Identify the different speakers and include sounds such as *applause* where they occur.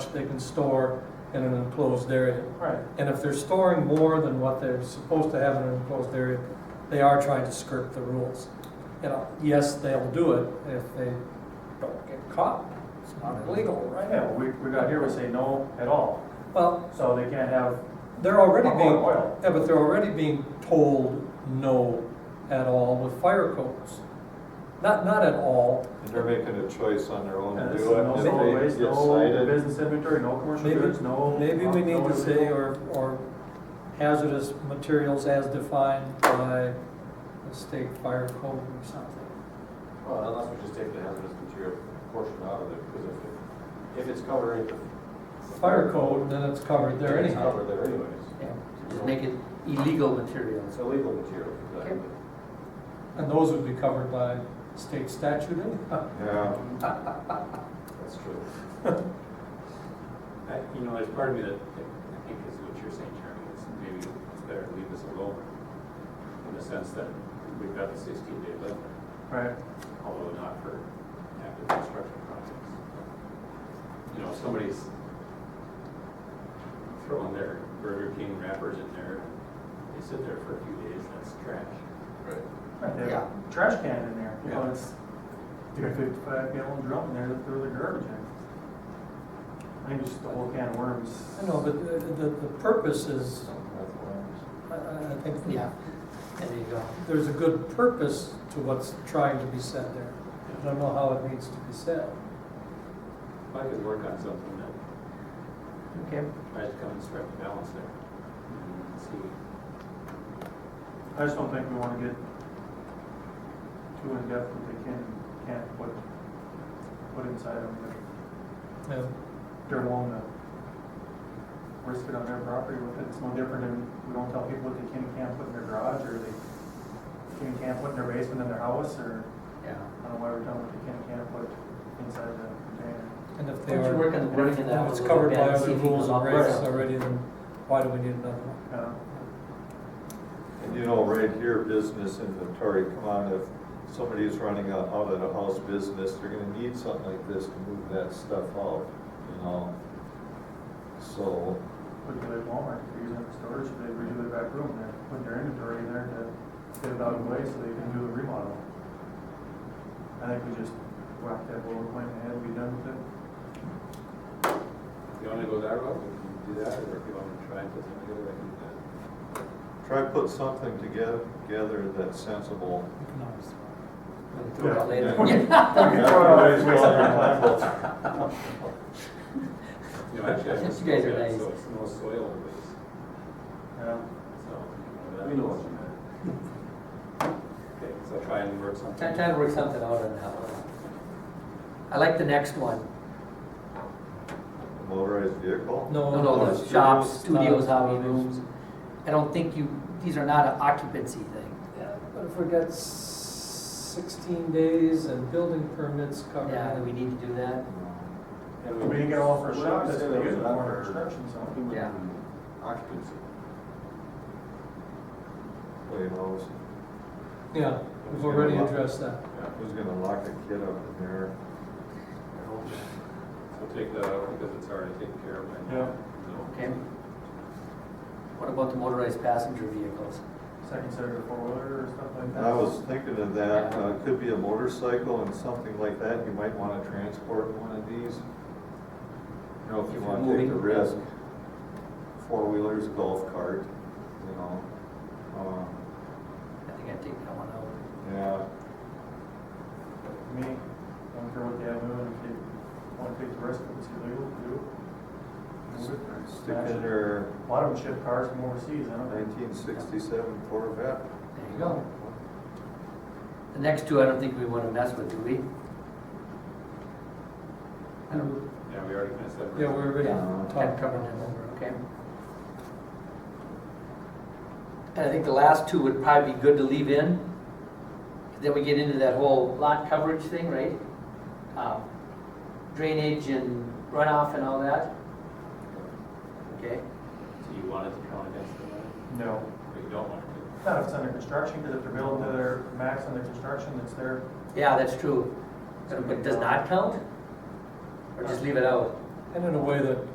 Speaker 1: much they can store in an enclosed area.
Speaker 2: Right,
Speaker 1: And if they're storing more than what they're supposed to have in an enclosed area, they are trying to skirt the rules. You know, yes, they'll do it if they don't get caught. It's not illegal, right?
Speaker 2: Mm-hmm. yeah, we, we got here, we say no at all,
Speaker 1: Well,
Speaker 2: so they can't have
Speaker 1: they're already
Speaker 2: Palm
Speaker 1: being,
Speaker 2: oil.
Speaker 1: yeah, but they're already being told no at all with fire codes. Not, not at all.
Speaker 3: And they're making a choice on their own
Speaker 2: And
Speaker 3: to
Speaker 2: uh, this is
Speaker 3: do it,
Speaker 2: no
Speaker 3: and
Speaker 2: solid
Speaker 3: if
Speaker 2: waste,
Speaker 3: they get
Speaker 2: no
Speaker 3: cited,
Speaker 2: business inventory, no commercial
Speaker 1: Maybe-
Speaker 2: goods, no.
Speaker 1: Maybe we need
Speaker 2: no
Speaker 1: to say,
Speaker 2: illegal-
Speaker 1: or, or hazardous materials as defined by the state fire code or something.
Speaker 4: Well, unless we just take the hazardous material portion out of it, because if, it- if it's covered in the.
Speaker 1: Fire code, then it's covered there
Speaker 4: It's
Speaker 1: anyhow.
Speaker 4: covered there anyways.
Speaker 1: Yeah.
Speaker 5: Just make it illegal materials.
Speaker 4: It's illegal material, exactly.
Speaker 1: And those would be covered by state statute anyhow.
Speaker 3: yeah.
Speaker 4: That's true.
Speaker 6: I- You know, there's part of me that, I think is what you're saying, Jeremy, is maybe it's better to leave this alone, in the sense that we've got the sixteen day limit,
Speaker 2: Right,
Speaker 6: although not for active construction projects. You know, if somebody's throwing their Burger King wrappers in there, they sit there for a few days, that's trash.
Speaker 2: right, they have
Speaker 5: Yeah.
Speaker 2: a trash can in there, you know,
Speaker 6: Yeah.
Speaker 2: it's, you got a fifty-five gallon drum in there, that throw the garbage in. I think it's just the whole can of worms.
Speaker 1: I know, but the, the, the purpose is,
Speaker 4: That's what I'm-
Speaker 1: I, I I think
Speaker 5: Yeah, there you go.
Speaker 1: there's a good purpose to what's trying to be said there. I don't know how it needs to be said.
Speaker 6: If I could work on something that
Speaker 5: Okay.
Speaker 6: tries to come and strike the balance there, and see
Speaker 2: I just don't think we wanna get too in-depth that they can, can't put, put inside of them.
Speaker 1: Yeah.
Speaker 2: they're willing to risk it on their property with it. It's no different than, we don't tell people what they can and can't put in their garage, or they can and can't put in their basement in their house, or, I
Speaker 5: Yeah.
Speaker 2: don't know why we're telling them what they can and can't put inside the container.
Speaker 1: And if
Speaker 5: Why
Speaker 1: they
Speaker 5: don't you
Speaker 1: are,
Speaker 5: work on, work on that
Speaker 1: if
Speaker 5: one a
Speaker 1: it's
Speaker 5: little
Speaker 1: covered
Speaker 5: bit
Speaker 1: by
Speaker 5: and
Speaker 1: other
Speaker 5: see if you can
Speaker 1: rules and
Speaker 5: operate
Speaker 1: regs
Speaker 5: it.
Speaker 1: already, then why do we need another one?
Speaker 2: Uh,
Speaker 3: And you know, right here, business inventory, come on, if somebody's running a out of the house business, they're gonna need something like this to move that stuff out, you know? So,
Speaker 2: Put it at Walmart, if they're using it for storage, they redo their back room, they're putting their inventory in there to get it out of the way so they can do the remodel. I think we just whack that bullet point in the head, be done with it.
Speaker 6: If you want to go that route, we can do that, or if you want to try and put something together, I can do that.
Speaker 3: try to put something together, together that's sensible.
Speaker 1: We can always-
Speaker 5: We can throw it out
Speaker 3: Yeah.
Speaker 5: later.
Speaker 3: *laughs*
Speaker 2: *laughs*
Speaker 3: Everybody's going their plan.
Speaker 6: You know, actually, I
Speaker 5: Yes,
Speaker 6: just
Speaker 5: you guys are
Speaker 6: looked at it,
Speaker 5: nice.
Speaker 6: So it's no soil waste,
Speaker 2: Yeah.
Speaker 6: so. you that
Speaker 4: We know what
Speaker 6: means-
Speaker 4: you meant.
Speaker 6: Okay, so try and work
Speaker 5: *laughs*
Speaker 6: something.
Speaker 5: Try, try to work something out on that one. I like the next one.
Speaker 3: Motorized vehicle?
Speaker 5: No,
Speaker 1: No,
Speaker 5: no,
Speaker 1: no,
Speaker 5: the shops,
Speaker 1: studios,
Speaker 5: studios, hobby
Speaker 1: studios.
Speaker 5: rooms. I don't think you, these are not an occupancy thing.
Speaker 1: Yeah, But if we got s- sixteen days and building permits covered.
Speaker 5: Yeah, do we need to do that?
Speaker 3: Um,
Speaker 6: And
Speaker 2: We didn't get all for a
Speaker 4: What
Speaker 2: shot,
Speaker 4: if we
Speaker 2: that's
Speaker 4: say
Speaker 2: the
Speaker 4: that was
Speaker 2: use
Speaker 4: not
Speaker 2: for
Speaker 4: for-
Speaker 2: construction, so.
Speaker 4: Human
Speaker 5: Yeah.
Speaker 4: Occupancy.
Speaker 3: Well, you know, it's-
Speaker 1: Yeah, we've already addressed that.
Speaker 3: who's gonna lock a kid up in there?
Speaker 6: So take that out because it's already taken care of. and-
Speaker 2: Yeah.
Speaker 6: So,
Speaker 5: Okay. What about the motorized passenger vehicles?
Speaker 2: second set of four-wheeler or stuff like that.
Speaker 3: I was thinking of that, uh, could be a motorcycle and something like that, you might wanna transport in one of these. You know, if
Speaker 5: If
Speaker 3: you
Speaker 5: you're
Speaker 3: wanna take the
Speaker 5: moving.
Speaker 3: risk, four-wheelers, golf cart, you know, um,
Speaker 5: I think I'd take that one out.
Speaker 3: yeah.
Speaker 2: To Me, I don't care what they have doing, if they want to take the risk, if it's illegal, do it. Move it or
Speaker 3: Stick
Speaker 2: smash
Speaker 3: in
Speaker 2: it.
Speaker 3: their
Speaker 2: A lot of them ship cars from overseas, I don't think.
Speaker 3: nineteen sixty-seven Corvette.
Speaker 5: There you go. The next two, I don't think we want to mess with, do we? I don't,
Speaker 6: Yeah, we already kind of said.
Speaker 1: Yeah, we already
Speaker 3: Yeah.
Speaker 1: talked.
Speaker 5: I've covered them over, okay? And I think the last two would probably be good to leave in. Then we get into that whole lot coverage thing, right? Um, Drainage and runoff and all that. Okay,
Speaker 6: So you wanted to count against the money,
Speaker 2: No,
Speaker 6: but you don't want to.
Speaker 2: not if it's under construction, because if they're building to their max under construction, it's their,
Speaker 5: yeah, that's true. But it does not count? Or just leave it out?
Speaker 1: and in a way that